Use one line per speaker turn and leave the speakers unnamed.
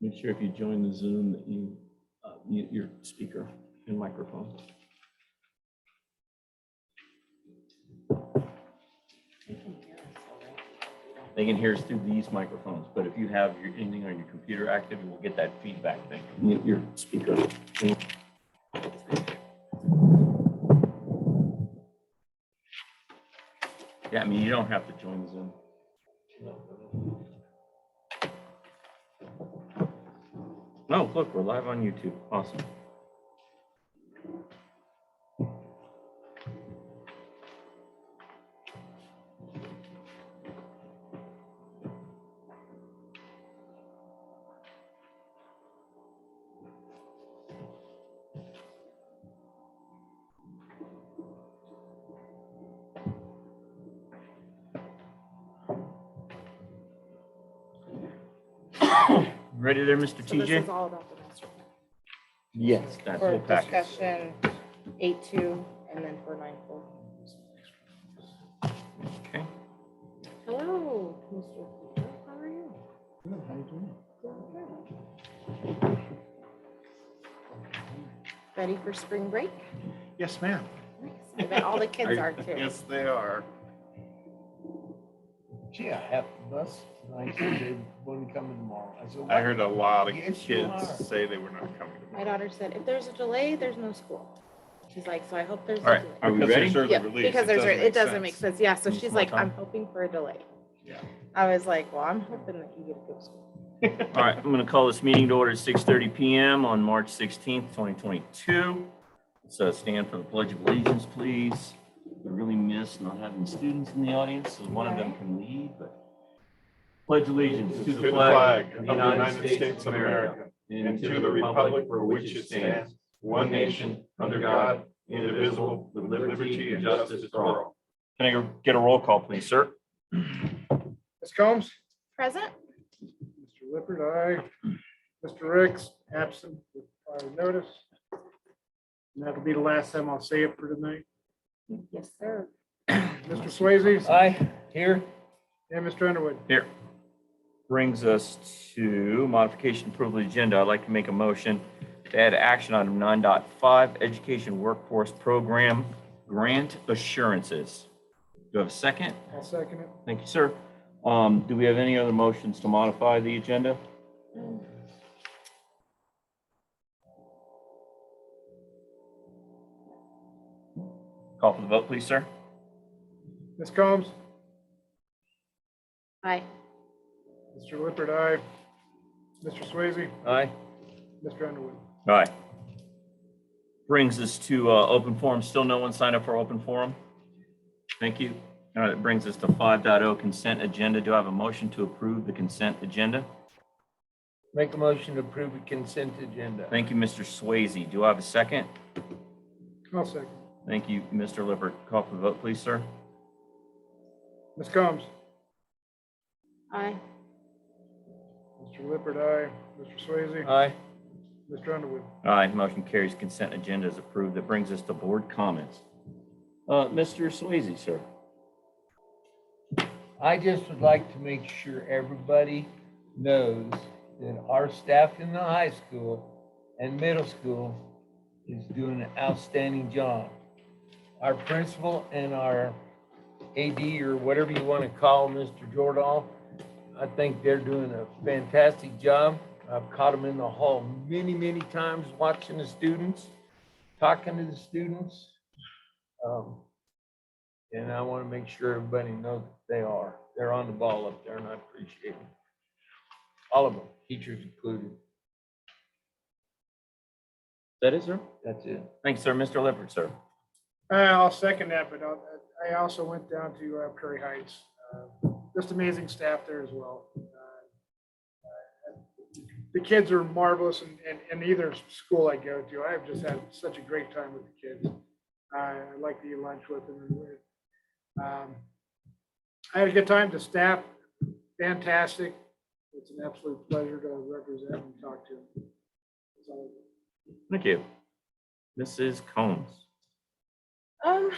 Make sure if you join the Zoom that you uh, mute your speaker and microphone. They can hear us through these microphones, but if you have your anything on your computer active, you will get that feedback thing. Mute your speaker. Yeah, I mean, you don't have to join the Zoom. No, look, we're live on YouTube. Awesome. Ready there, Mr.
So this is
TJ?
all about the master plan.
Yes, that
For
whole package.
discussion, eight two, and then for nine four.
Okay.
Hello, Mr. Peter, how are you? Good. Ready for spring break?
Yes, ma'am.
Nice. I bet all the kids are too.
Yes, they are.
Gee, I have the bus tonight, so they wouldn't come tomorrow. I
I
said, "What?"
heard a lot of
Yes, you
kids
are.
say they were not coming.
My daughter said, if there's a delay, there's no school. She's like, so I hope there's a
All right,
delay.
are we
Because there's
ready?
certain
Yeah,
release,
because there's, it doesn't make sense. Yeah, so
Need
she's
more
like, I'm
time?
hoping for a delay.
Yeah.
I was like, well, I'm hoping that you get a good school.
All right, I'm going to call this meeting to order at 6:30 PM on March 16th, 2022. So uh, stand for the Pledge of Allegiance, please. We really miss not having students in the audience, so one of them can lead, but. Pledge allegiance to the flag of the United States of America and to the republic for which it stands,
one nation, under God, indivisible, with liberty and justice for all.
Can I get a roll call, please, sir?
Ms. Combs?
Present?
Mr. Lippert, aye. Mr. Ricks, absent with prior notice. And that'll be the last time I'll say it for tonight.
Yes, sir.
Mr. Swayze?
Aye, here.
And Mr. Underwood?
Here. Brings us to modification approval of the agenda. I'd like to make a motion to add action item 9.5, education workforce program grant assurances. Do I have a second?
I'll second it.
Thank you, sir. Um, do we have any other motions to modify the agenda? Call for the vote, please, sir.
Ms. Combs?
Aye.
Mr. Lippert, aye. Mr. Swayze?
Aye.
Mr. Underwood?
All right. Brings us to uh, open forum. Still no one signed up for open forum? Thank you. All right, it brings us to 5.0 consent agenda. Do I have a motion to approve the consent agenda?
Make a motion to approve the consent agenda.
Thank you, Mr. Swayze. Do I have a second?
I'll second.
Thank you, Mr. Lippert. Call for the vote, please, sir.
Ms. Combs?
Aye.
Mr. Lippert, aye. Mr. Swayze?
Aye.
Mr. Underwood?
All right, motion carries. Consent agenda is approved. That brings us to board comments. Uh, Mr. Swayze, sir.
I just would like to make sure everybody knows that our staff in the high school and middle school is doing an outstanding job. Our principal and our AD or whatever you want to call Mr. Jordan, I think they're doing a fantastic job. I've caught them in the hall many, many times watching the students, talking to the students. Um, and I want to make sure everybody knows that they are. They're on the ball up there and I appreciate it. All of them, teachers included.
That is, sir.
That's it.
Thanks, sir. Mr. Lippert, sir.
Uh, I'll second that, but I'll- I also went down to uh, Prairie Heights. Uh, Just amazing staff there as well. Uh, uh, The kids are marvelous in, in- in either school I go to. I've just had such a great time with the kids. I I like to eat lunch with them. and with- um, I had a good time. The staff, fantastic. It's an absolute pleasure to represent and talk to them. So,
Thank you. Mrs. Combs.
Um,